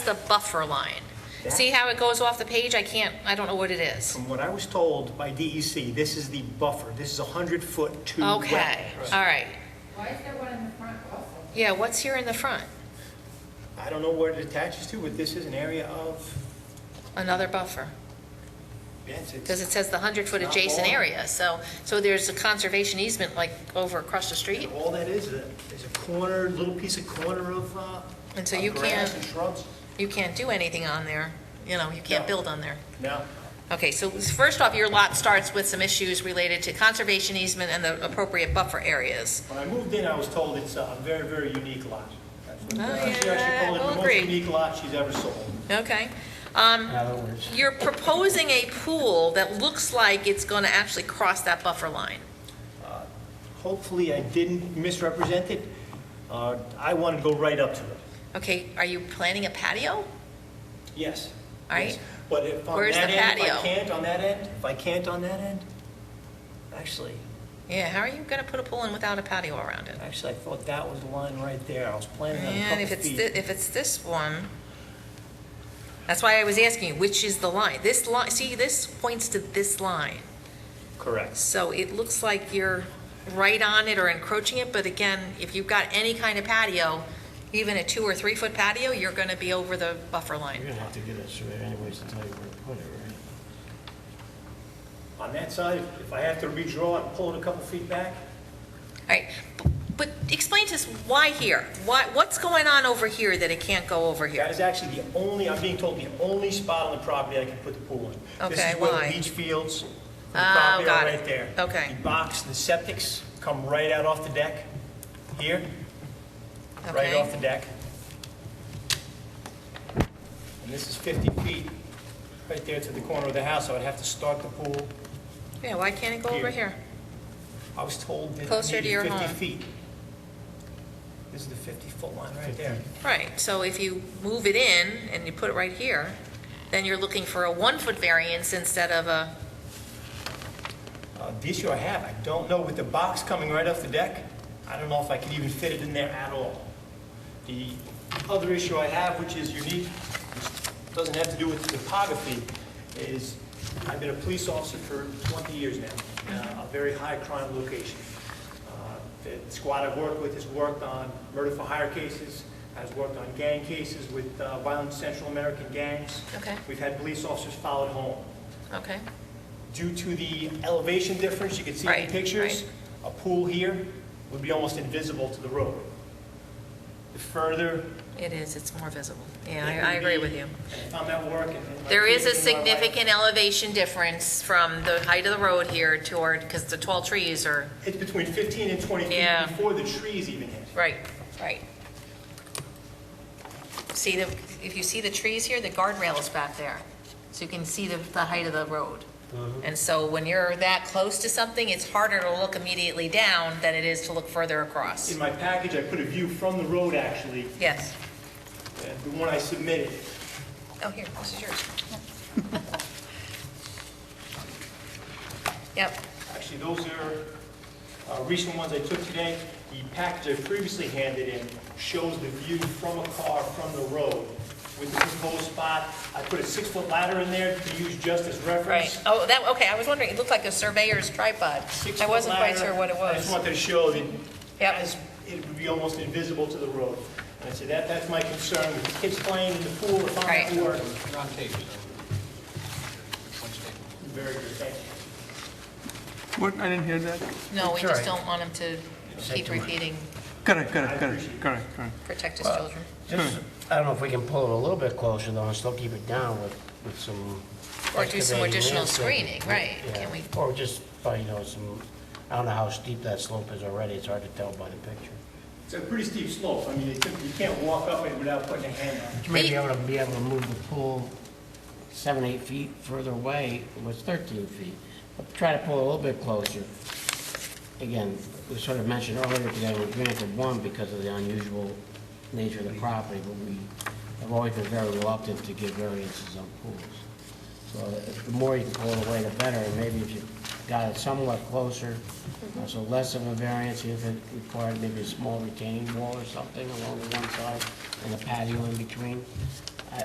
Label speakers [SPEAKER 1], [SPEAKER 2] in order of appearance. [SPEAKER 1] the buffer line. See how it goes off the page? I can't, I don't know what it is.
[SPEAKER 2] From what I was told by DEC, this is the buffer. This is 100 foot to
[SPEAKER 1] Okay,
[SPEAKER 2] wetlands.
[SPEAKER 1] all right.
[SPEAKER 3] Why is there one in the front also?
[SPEAKER 1] Yeah, what's here in the front?
[SPEAKER 2] I don't know where it attaches to, but this is an area of,
[SPEAKER 1] Another buffer,
[SPEAKER 2] yes, it's.
[SPEAKER 1] because it says the 100-foot
[SPEAKER 2] Not
[SPEAKER 1] adjacent
[SPEAKER 2] long.
[SPEAKER 1] area, so, so there's a conservation easement like over across the street?
[SPEAKER 2] And all that is, is a- is a corner, little piece of corner of, uh.
[SPEAKER 1] And so
[SPEAKER 2] of
[SPEAKER 1] you
[SPEAKER 2] Grass
[SPEAKER 1] can't-
[SPEAKER 2] and shrubs.
[SPEAKER 1] You can't do anything on there, you know, you can't
[SPEAKER 2] No.
[SPEAKER 1] build on there.
[SPEAKER 2] No,
[SPEAKER 1] Okay, so first off, your lot starts with some issues related to conservation easement and the appropriate buffer areas.
[SPEAKER 2] when I moved in, I was told it's a very, very unique lot. That's what,
[SPEAKER 1] Oh,
[SPEAKER 2] uh, She
[SPEAKER 1] yeah,
[SPEAKER 2] actually called it
[SPEAKER 1] we'll
[SPEAKER 2] the
[SPEAKER 1] agree.
[SPEAKER 2] most unique lot she's ever sold.
[SPEAKER 1] Okay. Um,
[SPEAKER 4] In other words,
[SPEAKER 1] You're proposing a pool that looks like it's going to actually cross that buffer line.
[SPEAKER 2] Hopefully, I didn't misrepresent it. Uh, I want to go right up to it.
[SPEAKER 1] Okay, are you planning a patio?
[SPEAKER 2] Yes.
[SPEAKER 1] All right.
[SPEAKER 2] Yes. But if on
[SPEAKER 1] Where's
[SPEAKER 2] that
[SPEAKER 1] the
[SPEAKER 2] end, if
[SPEAKER 1] patio?
[SPEAKER 2] I can't on that end, if I can't on that end, actually,
[SPEAKER 1] Yeah, how are you going to put a pool in without a patio around it?
[SPEAKER 2] actually, I thought that was the line right there. I was planning on a
[SPEAKER 1] And
[SPEAKER 2] couple
[SPEAKER 1] if
[SPEAKER 2] feet.
[SPEAKER 1] it's, thi- if it's this one, that's why I was asking you, which is the line? This line, see, this points to this line.
[SPEAKER 2] Correct.
[SPEAKER 1] So it looks like you're right on it or encroaching it, but again, if you've got any kind of patio, even a two or three-foot patio, you're going to be over the buffer
[SPEAKER 4] you're
[SPEAKER 1] line.
[SPEAKER 4] gonna have to get a surveyor anyways to tell you where to put it, right?
[SPEAKER 2] On that side, if I have to redraw and pull it a couple feet back,
[SPEAKER 1] All right, b- but explain to us why here? Why, what's going on over here that it can't go over
[SPEAKER 2] that
[SPEAKER 1] here?
[SPEAKER 2] is actually the only, I'm being told, the only spot on the property I can put the pool in. This
[SPEAKER 1] Okay,
[SPEAKER 2] is where
[SPEAKER 1] why?
[SPEAKER 2] the beach fields, the
[SPEAKER 1] Oh,
[SPEAKER 2] property
[SPEAKER 1] got
[SPEAKER 2] are
[SPEAKER 1] it.
[SPEAKER 2] right there.
[SPEAKER 1] Okay.
[SPEAKER 2] The box, the septics come right out off the deck here. right
[SPEAKER 1] Okay.
[SPEAKER 2] off the deck. And this is 50 feet, right there to the corner of the house, so I'd have to start the pool.
[SPEAKER 1] Yeah, why can't it go over
[SPEAKER 2] Here.
[SPEAKER 1] here?
[SPEAKER 2] I was told that
[SPEAKER 1] Closer to
[SPEAKER 2] it
[SPEAKER 1] your
[SPEAKER 2] needed 50
[SPEAKER 1] home.
[SPEAKER 2] feet. This is the 50-foot line right there.
[SPEAKER 1] Right, so if you move it in and you put it right here, then you're looking for a one-foot variance instead of a,
[SPEAKER 2] Uh, The issue I have, I don't know, with the box coming right off the deck, I don't know if I could even fit it in there at all. The other issue I have, which is unique, which doesn't have to do with topography, is I've been a police officer for 20 years now, in a very high crime location. Uh, The squad I've worked with has worked on murder for hire cases, has worked on gang cases with uh, violent Central American gangs.
[SPEAKER 1] Okay.
[SPEAKER 2] We've had police officers followed home
[SPEAKER 1] okay,
[SPEAKER 2] due to the elevation difference, you can see in
[SPEAKER 1] Right,
[SPEAKER 2] the pictures,
[SPEAKER 1] right.
[SPEAKER 2] a pool here would be almost invisible to the road. The further.
[SPEAKER 1] it is, it's more visible. Yeah, I,
[SPEAKER 2] it
[SPEAKER 1] I
[SPEAKER 2] would
[SPEAKER 1] agree
[SPEAKER 2] be,
[SPEAKER 1] with you.
[SPEAKER 2] and If I'm at work and- and. my
[SPEAKER 1] There is a
[SPEAKER 2] kids and my wife-
[SPEAKER 1] significant elevation difference from the height of the road here toward, because the tall trees are,
[SPEAKER 2] It's between 15 and 20 feet
[SPEAKER 1] Yeah.
[SPEAKER 2] before the trees even hit.
[SPEAKER 1] right, right. See the, if you see the trees here, the guardrail is back there, so you can see the, the height of the road. And so when you're that close to something, it's harder to look immediately down than it is to look further across.
[SPEAKER 2] In my package, I put a view from the road, actually,
[SPEAKER 1] Yes.
[SPEAKER 2] and the one I submitted.
[SPEAKER 1] Oh, here, this is yours. Yep,
[SPEAKER 2] Actually, those are uh, recent ones I took today. The package I previously handed in shows the view from a car from the road with the proposed spot. I put a six-foot ladder in there to use just as reference.
[SPEAKER 1] Right, oh, that, okay, I was wondering, it looked like a surveyor's tripod. I
[SPEAKER 2] Six-foot
[SPEAKER 1] wasn't quite
[SPEAKER 2] ladder.
[SPEAKER 1] sure what it
[SPEAKER 2] I just
[SPEAKER 1] was.
[SPEAKER 2] wanted to show that
[SPEAKER 1] Yep.
[SPEAKER 2] as, it would be almost invisible to the road. And I said, that, that's my concern with the kids playing in the pool if I'm at
[SPEAKER 1] Right.
[SPEAKER 2] work.
[SPEAKER 5] You're on tape, so. One statement.
[SPEAKER 2] Very good, thank you.
[SPEAKER 6] What, I didn't hear that.
[SPEAKER 1] No, we
[SPEAKER 6] It's all
[SPEAKER 1] just
[SPEAKER 6] right.
[SPEAKER 1] don't want him to keep repeating,
[SPEAKER 6] Correct,
[SPEAKER 2] I
[SPEAKER 6] correct,
[SPEAKER 2] appreciate
[SPEAKER 6] correct,
[SPEAKER 2] it.
[SPEAKER 6] correct, correct.
[SPEAKER 1] protect his children.
[SPEAKER 4] Just, I don't know if we can pull it a little bit closer though, and still keep it down with, with some.
[SPEAKER 1] Or do some
[SPEAKER 4] excavating
[SPEAKER 1] additional
[SPEAKER 4] landscaping.
[SPEAKER 1] screening, right, can we-
[SPEAKER 4] Yeah, Or just, by, you know, some, I don't know how steep that slope is already, it's hard to tell by the picture.
[SPEAKER 2] It's a pretty steep slope. I mean, you can't- you can't walk up it without putting a hand on it.
[SPEAKER 4] You may be able to, be able to move the pool seven, eight feet further away, it was 13 feet. But Try to pull a little bit closer. Again, we sort of mentioned earlier today, we granted one because of the unusual nature of the property, but we have always been very reluctant to give variances on pools. So if- the more you can pull it away, the better, and maybe if you got it somewhat closer, uh, so less of a variance, if it required maybe a small retaining wall or something along the one side, and a patio in between,